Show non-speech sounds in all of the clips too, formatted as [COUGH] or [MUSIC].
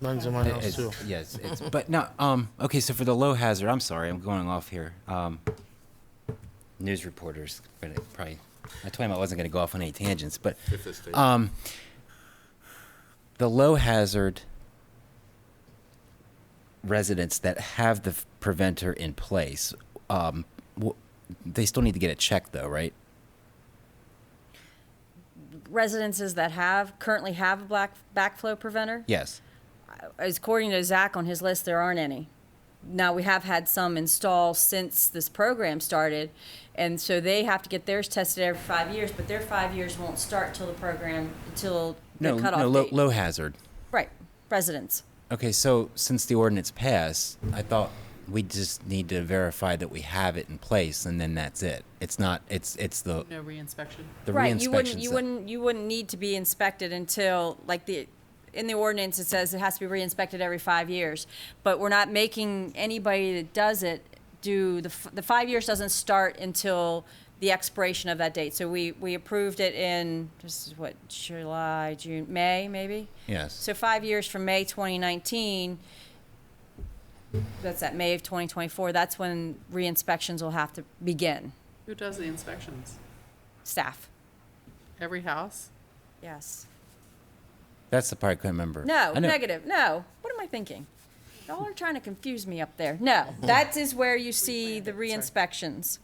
Mine's in my house It's- too. Yes, it's, but no, um, okay, so for the low hazard, I'm sorry, I'm going off here. Um, news reporters, gonna probably, I told him I wasn't gonna go off on any tangents, but, um, the low hazard residents that have the f- preventer in place, um, wh- they still need to get it checked though, right? Residences that have, currently have a black, backflow preventer? Yes. As according to Zach on his list, there aren't any. Now, we have had some install since this program started, and so they have to get theirs tested every five years, but their five years won't start till the program, till No, no, the cutoff low, date. low hazard. Right, residents. Okay, so since the ordinance passed, I thought we just need to verify that we have it in place and then that's it. It's not, it's, it's the, No reinspection. the Right, you reinspection wouldn't, you stuff. wouldn't, you wouldn't need to be inspected until, like, the, in the ordinance, it says it has to be re-inspected every five years. But we're not making anybody that does it do, the, f- the five years doesn't start until the expiration of that date. So we, we approved it in, this is what, July, June, May, maybe? Yes, So five years from May 2019, that's that May of 2024, that's when re-inspections will have to begin, Who does the inspections? staff. Every house? Yes. that's the part I couldn't remember. No, I know- negative. No. What am I thinking? Y'all are trying to confuse me up there. [LAUGHS] No, that is where you see the re-inspections.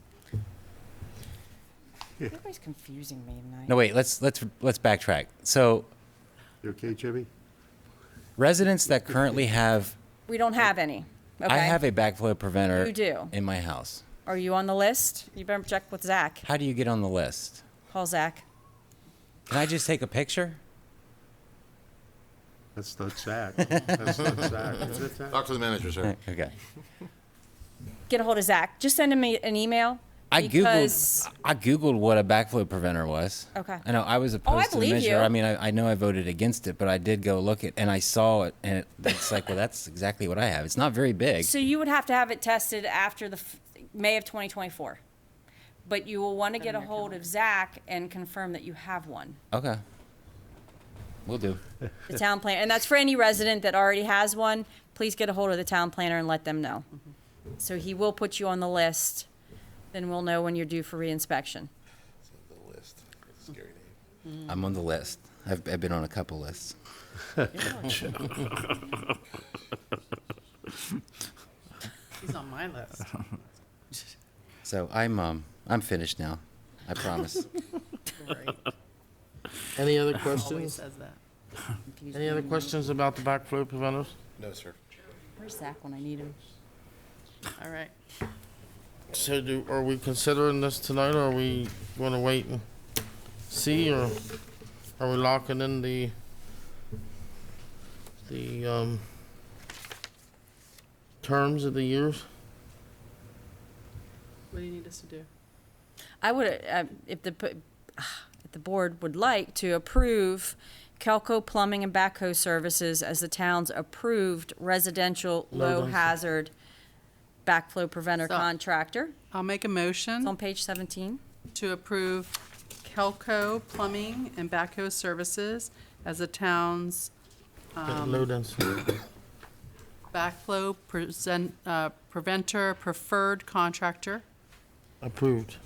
Everybody's confusing me tonight. No, wait, let's, let's, let's backtrack. So You okay, Jimmy? residents that currently have, We don't have any. Okay. I have a backflow preventer. You do. In my house. Are you on the list? You better check with Zach. How do you get on the list? Call Zach. Can I just take a picture? That's not Zach. That's not Zach. Is it Zach? Talk to the manager, sir. Okay. Get a hold of Zach. Just send him a- an email. I because- googled. I googled what a backflow preventer was. Okay. Oh, I know I was opposed to the believe measure. you. I mean, I, I know I voted against it, but I did go look at and I saw it, and it, it's like, well, that's exactly what I have. It's not very big. So you would have to have it tested after the f- May of 2024. But you will want to get a hold of Zach and confirm that you have one. okay. We'll do. the town planner, and that's for any resident that already has one, please get a hold of the town planner and let them know. So he will put you on the list, then we'll know when you're due for reinspection. The list. Scary name. I'm on the list. I've, I've been on a couple lists. He's on my list. So I'm um I'm finished now. I promise. Great. Any other Always questions? says that. Any other questions about the backflow preventers? No, sir. Where's Zach when I need him? All right. So do, are we considering this tonight or are we gonna wait and see or are we locking in the, the, um, terms of the years? What do you need us to do? I would, uh, if the, p- ah, if the board would like to approve Kelco Plumbing and Backhoe Services as the town's approved residential Low low density. hazard backflow preventer So- contractor. I'll make a It's motion on page seventeen. to approve Kelco Plumbing and Backhoe Services as the town's Low density. backflow present, uh, preventer preferred contractor. Approved.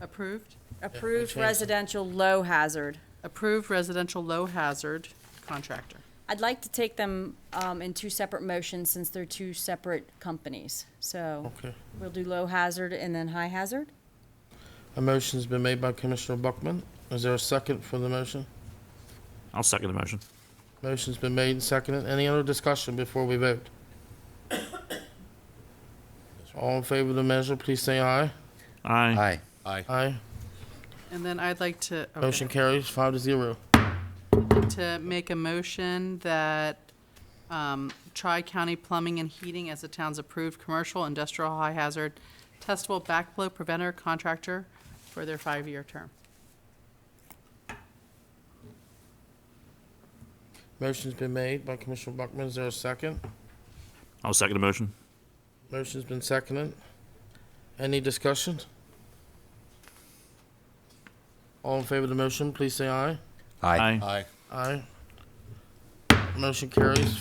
Approved? Approved changed it. residential low hazard. Approved residential low hazard contractor. I'd like to take them um, in two separate motions since they're two separate companies. So Okay. we'll do low hazard and then high hazard. A motion's been made by Commissioner Buckman. Is there a second for the motion? I'll second the motion. Motion's been made and seconded. Any other discussion before we vote? All in favor of the measure, please say aye. Aye. [LAUGHS] Hi. Aye. And then I'd like to. okay. Motion carries five to zero. to make a motion that um, Tri-County Plumbing and Heating as the town's approved commercial industrial high hazard testable backflow preventer contractor for their five-year term. Motion's been made by Commissioner Buckman. Is there a second? I'll second the motion. Motion's been seconded. Any discussion? All in favor of the motion, please say aye. Hi. Aye. Aye. Aye. Motion carries